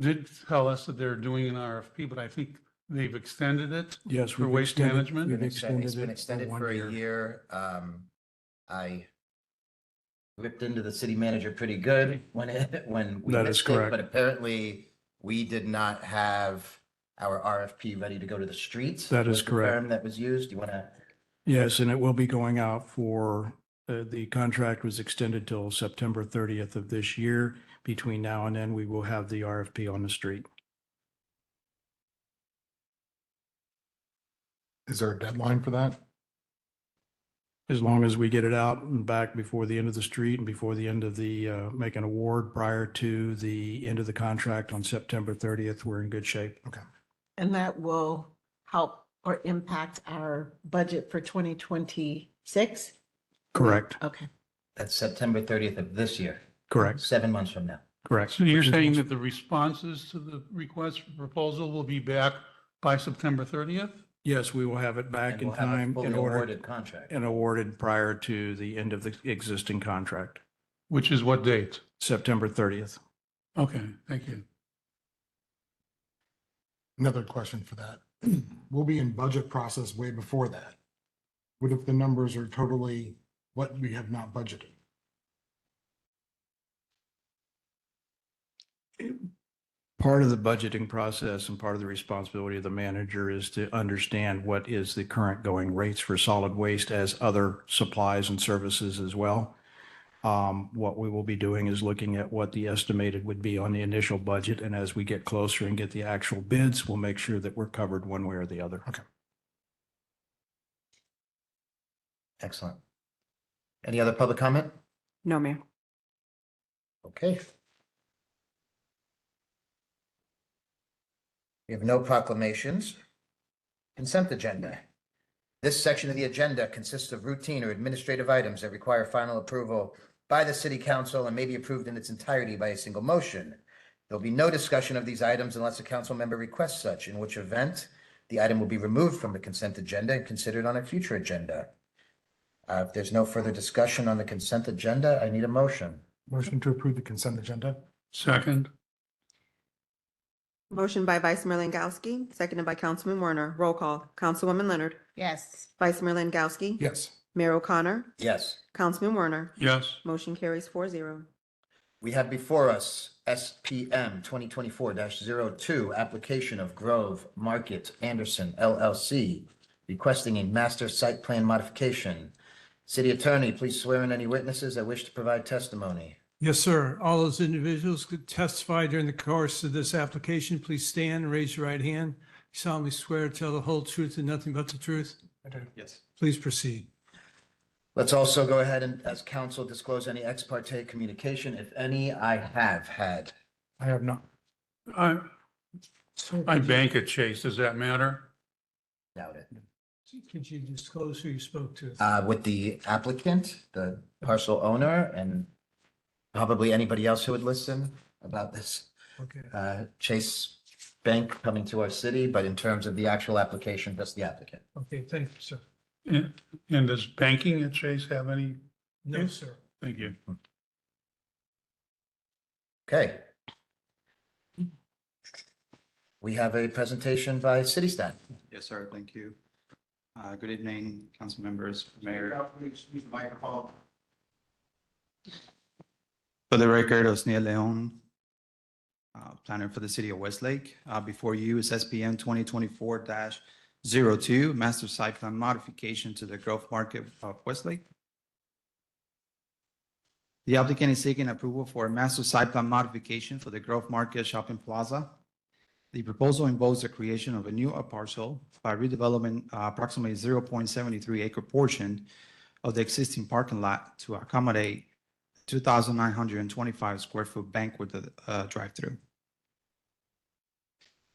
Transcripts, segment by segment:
did tell us that they're doing an RFP, but I think they've extended it. Yes. For we've waste extended- management? We've Been Been extended- It's extended been it for extended for one a year. year. Um, I ripped into the city manager pretty good when it, when we That is missed it, correct. but apparently we did not have our RFP ready to go to the streets. That is was the correct. term That was used. Do you want to, Yes, and it will be going out for, uh, the contract was extended till September 30th of this year. Between now and then, we will have the RFP on the street. Is there a deadline for that? As long as we get it out and back before the end of the street and before the end of the, uh, make an award prior to the end of the contract on September 30th, we're in good shape. And that will help or impact our budget for twenty twenty-six? Correct, Okay. that's September thirtieth of this year, correct, seven months from now. correct. So you're saying that the responses to the request for proposal will be back by September 30th? Yes, we will have it back And in we'll have a time fully in order awarded Contract. and awarded prior to the end of the existing contract, Which is what date? September 30th. Okay, thank you. Another question for that. We'll be in budget process way before that. What if the numbers are totally what we have not budgeted? Part of the budgeting process and part of the responsibility of the manager is to understand what is the current going rates for solid waste as other supplies and services as well. Um, What we will be doing is looking at what the estimated would be on the initial budget, and as we get closer and get the actual bids, we'll make sure that we're covered one way or the other. Excellent. Any other public comment? No, ma'am. Okay. We have no proclamations. Consent agenda. This section of the agenda consists of routine or administrative items that require final approval by the city council and may be approved in its entirety by a single motion. There'll be no discussion of these items unless a council member requests such, in which event the item will be removed from the consent agenda and considered on a future agenda. Uh, If there's no further discussion on the consent agenda, I need a motion. Motion to approve the consent agenda? Second, Motion by Vice Mayor Langowski, seconded by Councilman Werner. Roll call. Councilwoman Leonard. Yes. Vice Mayor Langowski. Yes. Mayor O'Connor. Yes. Councilman Werner. yes. Motion carries four zero. We have before us SPM 2024-02, application of Grove Market Anderson LLC, requesting a master site plan modification. City Attorney, please swear in any witnesses that wish to provide testimony. Yes, sir. All those individuals could testify during the course of this application. Please stand and raise your right hand. You solemnly swear to tell the whole truth and nothing but the truth? I do. Yes. Please proceed. Let's also go ahead and, as counsel, disclose any ex parte communication, if any, I have had. I have not. I, I bank at Chase, does that matter? Doubt it. Could you disclose who you spoke to? Uh, With the applicant, the parcel owner, and probably anybody else who would listen about this. Okay. uh, Chase Bank coming to our city, but in terms of the actual application, just the applicant. Okay, thank you, sir. And and does banking at Chase have any? No, sir. Thank you. Okay. We have a presentation by city staff. Yes, sir, thank you. Uh, Good evening, council members, mayor. For the record, Osnia Leon, uh, planner for the city of Westlake. Uh, Before you is SPM 2024-02, master site plan modification to the Grove Market of Westlake. The applicant is seeking approval for a master site plan modification for the Grove Market Shopping Plaza. The proposal involves the creation of a new parcel by redevelopment uh, approximately 0.73 acre portion of the existing parking lot to accommodate 2,925 square foot banquet uh, drive-through.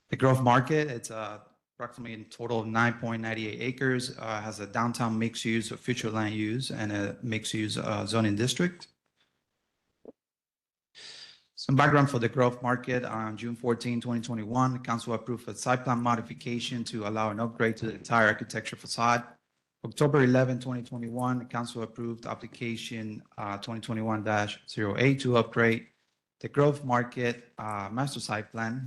The Grove Market, it's uh, approximately a total of 9.98 acres, uh, has a downtown mixed use of future land use and a mixed use uh, zoning district. Some background for the Grove Market. On June 14, 2021, the council approved a site plan modification to allow an upgrade to the entire architecture facade. October 11, 2021, the council approved application uh, 2021-08 to upgrade the Grove Market uh, Master Site Plan